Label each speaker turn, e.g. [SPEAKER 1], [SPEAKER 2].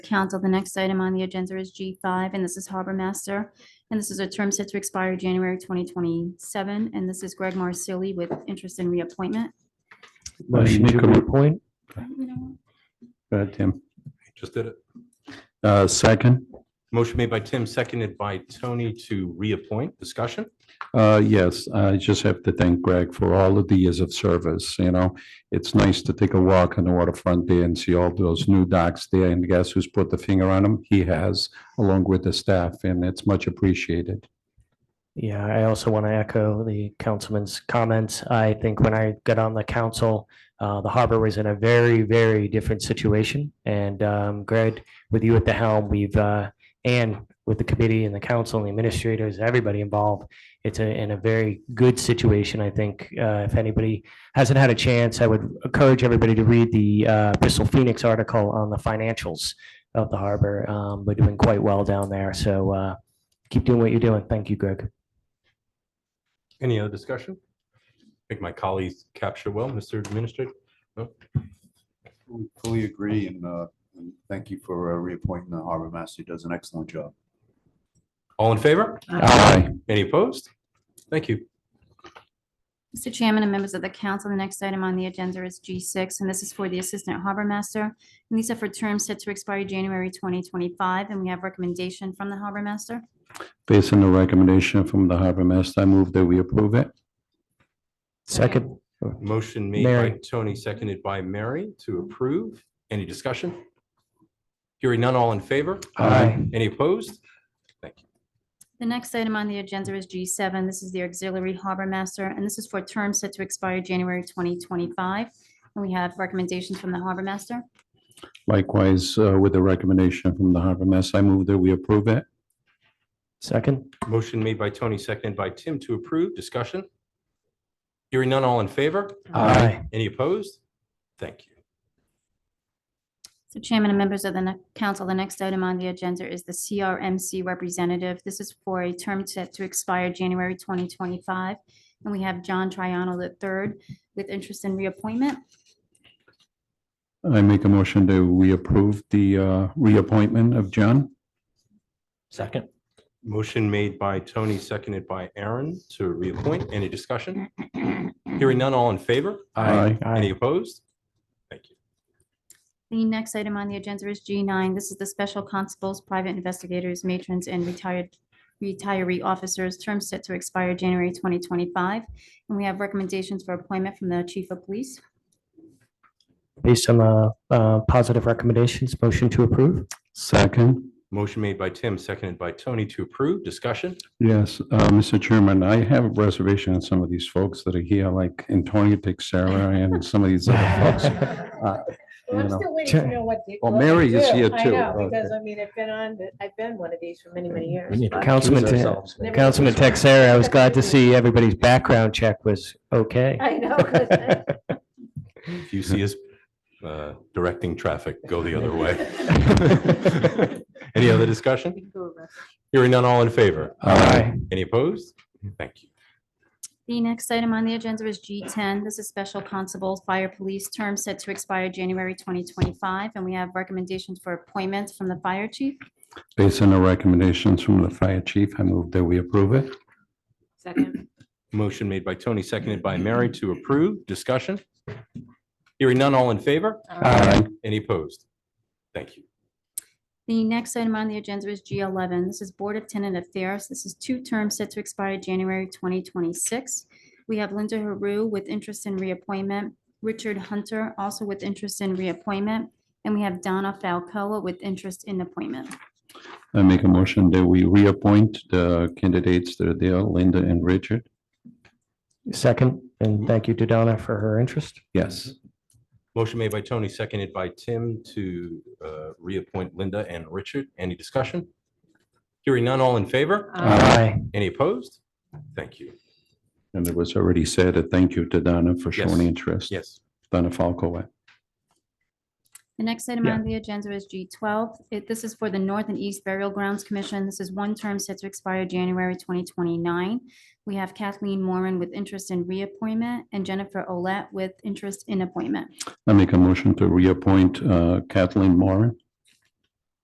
[SPEAKER 1] Council, the next item on the agenda is G5, and this is Harbor Master. And this is a term set to expire January 2027, and this is Greg Marsili with interest in reappointment.
[SPEAKER 2] Motion to reappoint. Go ahead, Tim.
[SPEAKER 3] Just did it.
[SPEAKER 2] Uh, Second,
[SPEAKER 3] Motion made by Tim, seconded by Tony to reappoint. Discussion?
[SPEAKER 2] Uh, yes, I just have to thank Greg for all of the years of service, you know. It's nice to take a walk on the waterfront there and see all those new docks there, and guess who's put the finger on them? He has, along with the staff, and it's much appreciated.
[SPEAKER 4] Yeah, I also want to echo the councilman's comments. I think when I got on the council, uh, the harbor was in a very, very different situation. And, um, Greg, with you at the helm, we've, uh, and with the committee and the council and the administrators, everybody involved, it's a, in a very good situation, I think. Uh, if anybody hasn't had a chance, I would encourage everybody to read the, uh, Bristol Phoenix article on the financials of the harbor. Um, we're doing quite well down there. So, uh, keep doing what you're doing. Thank you, Greg.
[SPEAKER 3] Any other discussion? I think my colleagues capture well, Mr. Administrator.
[SPEAKER 5] We Fully agree and uh, and thank you for uh, reappointing the harbor master. He does an excellent job.
[SPEAKER 3] All in favor?
[SPEAKER 2] Aye.
[SPEAKER 3] Any opposed? Thank you.
[SPEAKER 1] Mr. Chairman and members of the council, the next item on the agenda is G6, and this is for the Assistant Harbor Master. And these are for terms set to expire January 2025, and we have recommendation from the Harbor Master.
[SPEAKER 2] Based on the recommendation from the harbor master, I move that we approve it.
[SPEAKER 4] Second,
[SPEAKER 3] Motion made by
[SPEAKER 4] Mary.
[SPEAKER 3] Tony, seconded by Mary to approve. Any discussion? Hearing none, all in favor?
[SPEAKER 4] Aye.
[SPEAKER 3] Any opposed?
[SPEAKER 1] The next item on the agenda is G7. This is the Auxiliary Harbor Master, and this is for terms set to expire January 2025. And we have recommendations from the Harbor Master.
[SPEAKER 2] Likewise, uh, with the recommendation from the harbor master, I move that we approve it.
[SPEAKER 4] second,
[SPEAKER 3] Motion made by Tony, seconded by Tim to approve. Discussion? Hearing none, all in favor?
[SPEAKER 4] Aye.
[SPEAKER 3] Any opposed? Thank you.
[SPEAKER 1] So Chairman and members of the ne- council, the next item on the agenda is the CRMC representative. This is for a term set to expire January 2025. And we have John Triano III with interest in reappointment.
[SPEAKER 2] I make a motion that we approve the uh, reappointment of John.
[SPEAKER 4] second,
[SPEAKER 3] Motion made by Tony, seconded by Aaron to reappoint. Any discussion? Hearing none, all in favor?
[SPEAKER 2] Aye.
[SPEAKER 3] Any opposed? Thank you.
[SPEAKER 1] The next item on the agenda is G9. This is the Special Constables, Private Investigators, Matrons, and Retired Retiree Officers, term set to expire January 2025. And we have recommendations for appointment from the Chief of Police.
[SPEAKER 4] based on the uh, positive recommendations, motion to approve.
[SPEAKER 2] Second.
[SPEAKER 3] Motion made by Tim, seconded by Tony to approve. Discussion?
[SPEAKER 2] Yes, uh, Mr. Chairman, I have a reservation on some of these folks that are here, like Antonio Texera and some of these other folks.
[SPEAKER 6] Well, I'm
[SPEAKER 2] Uh, you know.
[SPEAKER 6] still waiting to know what. they-
[SPEAKER 2] Well,
[SPEAKER 6] what they
[SPEAKER 2] Mary is
[SPEAKER 6] do.
[SPEAKER 2] here
[SPEAKER 6] I
[SPEAKER 2] too. uh,
[SPEAKER 6] know, because I mean, I've been on, the- I've been one of these for many, many years. but-
[SPEAKER 4] Councilman, Te-
[SPEAKER 6] Never-
[SPEAKER 4] Councilman Texera, I was glad to see everybody's background check was okay.
[SPEAKER 6] I know. 'cause I-
[SPEAKER 3] If you see us uh, directing traffic, go the other way. Any other discussion? Hearing none, all in favor?
[SPEAKER 4] Aye.
[SPEAKER 3] Any opposed? Thank you.
[SPEAKER 1] The next item on the agenda is G10. This is Special Constables, Fire Police, term set to expire January 2025. And we have recommendations for appointments from the Fire Chief.
[SPEAKER 2] Based on the recommendations from the fire chief, I move that we approve it.
[SPEAKER 3] Motion made by Tony, seconded by Mary to approve. Discussion? Hearing none, all in favor?
[SPEAKER 2] Aye.
[SPEAKER 3] Any opposed? Thank you.
[SPEAKER 1] The next item on the agenda is G11. This is Board of Tenant Affairs. This is two terms set to expire January 2026. We have Linda Haru with interest in reappointment, Richard Hunter also with interest in reappointment, and we have Donna Falcoa with interest in appointment.
[SPEAKER 2] I make a motion that we reappoint the candidates that are there, Linda and Richard.
[SPEAKER 4] Second, and thank you to Donna for her interest.
[SPEAKER 2] Yes.
[SPEAKER 3] Motion made by Tony, seconded by Tim to uh, reappoint Linda and Richard. Any discussion? Hearing none, all in favor?
[SPEAKER 2] Uh,
[SPEAKER 3] Any opposed? Thank you.
[SPEAKER 2] And it was already said, a thank you to Donna for
[SPEAKER 3] Yes.
[SPEAKER 2] showing interest.
[SPEAKER 3] Yes.
[SPEAKER 2] Donna Falco.
[SPEAKER 1] The next item on the agenda is G12. It- This is for the North and East Burial Grounds Commission. This is one term set to expire January 2029. We have Kathleen Moran with interest in reappointment and Jennifer Olet with interest in appointment.
[SPEAKER 2] I make a motion to reappoint uh, Kathleen Moran.